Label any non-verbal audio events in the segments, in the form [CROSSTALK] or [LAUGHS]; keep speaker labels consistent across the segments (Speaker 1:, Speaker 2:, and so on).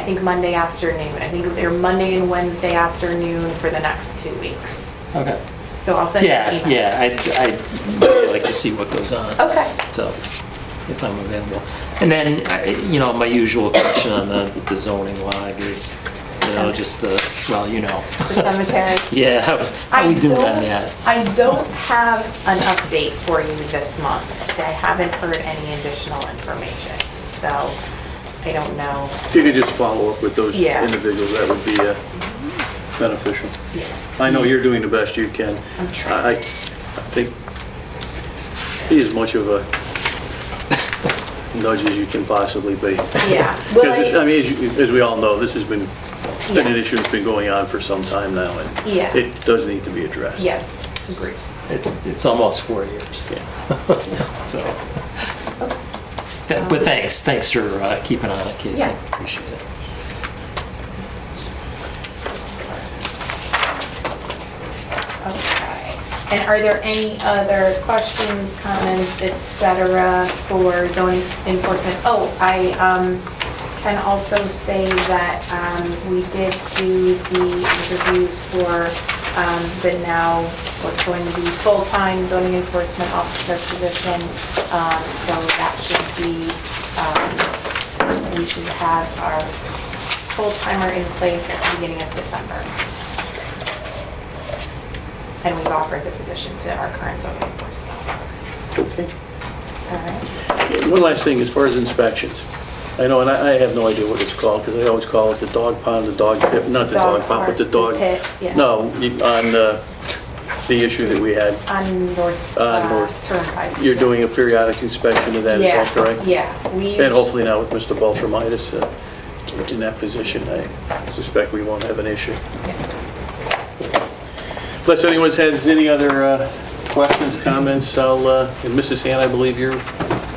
Speaker 1: think Monday afternoon. I think they're Monday and Wednesday afternoon for the next two weeks.
Speaker 2: Okay.
Speaker 1: So I'll send you an
Speaker 2: Yeah,
Speaker 1: email.
Speaker 2: yeah, I'd, I'd like to see what goes on.
Speaker 1: Okay.
Speaker 2: So, if I'm available. And then, I- you know, my usual question on the the zoning log is, you know, just the, well, you know.
Speaker 1: The cemetery.
Speaker 2: Yeah, how [LAUGHS] how
Speaker 1: I
Speaker 2: we doing
Speaker 1: don't.
Speaker 2: on that?
Speaker 1: I don't have an update for you this month. I haven't heard any additional information, so I don't know.
Speaker 3: If you could just follow up with those
Speaker 1: Yeah.
Speaker 3: individuals, that would be uh, beneficial.
Speaker 1: Yes.
Speaker 3: I know you're doing the best you can.
Speaker 1: I'm trying.
Speaker 3: I I think be as much of a nudge as you can possibly be. [LAUGHS]
Speaker 1: Yeah. Well,
Speaker 3: Because this,
Speaker 1: I-
Speaker 3: I mean, as you- as we all know, this has been, it's been an
Speaker 1: Yeah.
Speaker 3: issue that's been going on for some time now, and
Speaker 1: Yeah.
Speaker 3: it does need to be addressed.
Speaker 1: Yes, agree.
Speaker 2: It's, it's almost four years, yeah. [LAUGHS] So. But but thanks, thanks for uh, keeping on it, Casey.
Speaker 1: Yeah.
Speaker 2: Appreciate it.
Speaker 1: Okay. And are there any other questions, comments, et cetera, for zoning enforcement? Oh, I um, can also say that um, we did do the interviews for um, the now, what's going to be full-time zoning enforcement officer position. Um, So that should be, um, we should have our full-timer in place at the beginning of December. And we've offered the position to our current zoning enforcement officer.
Speaker 3: Okay.
Speaker 1: All right.
Speaker 3: One last thing, as far as inspections, I know, and I I have no idea what it's called, because I always call it the dog pound, the dog pit, not the
Speaker 1: Dog
Speaker 3: dog pound, but the
Speaker 1: park,
Speaker 3: dog...
Speaker 1: the pit, yeah.
Speaker 3: No, you- on uh, the issue that we had,
Speaker 1: On North,
Speaker 3: On
Speaker 1: uh,
Speaker 3: North.
Speaker 1: Turnpike.
Speaker 3: you're doing a periodic inspection of that, is that
Speaker 1: Yeah,
Speaker 3: correct?
Speaker 1: Yeah, we.
Speaker 3: And hopefully now with Mr. Beltramitis uh, in that position, I suspect we won't have an issue. Unless anyone has any other uh, questions, comments, I'll, uh, and Mrs. Han, I believe you're,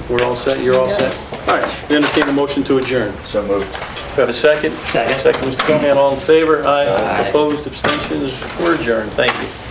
Speaker 3: we're all set, you're all set? All right, we entertain a motion to adjourn.
Speaker 4: So moved.
Speaker 3: We Have a second?
Speaker 2: Second.
Speaker 3: Second, Mr. Conahan, all in favor?
Speaker 2: Aye.
Speaker 3: Opposed, abstentions, we're adjourned, thank you.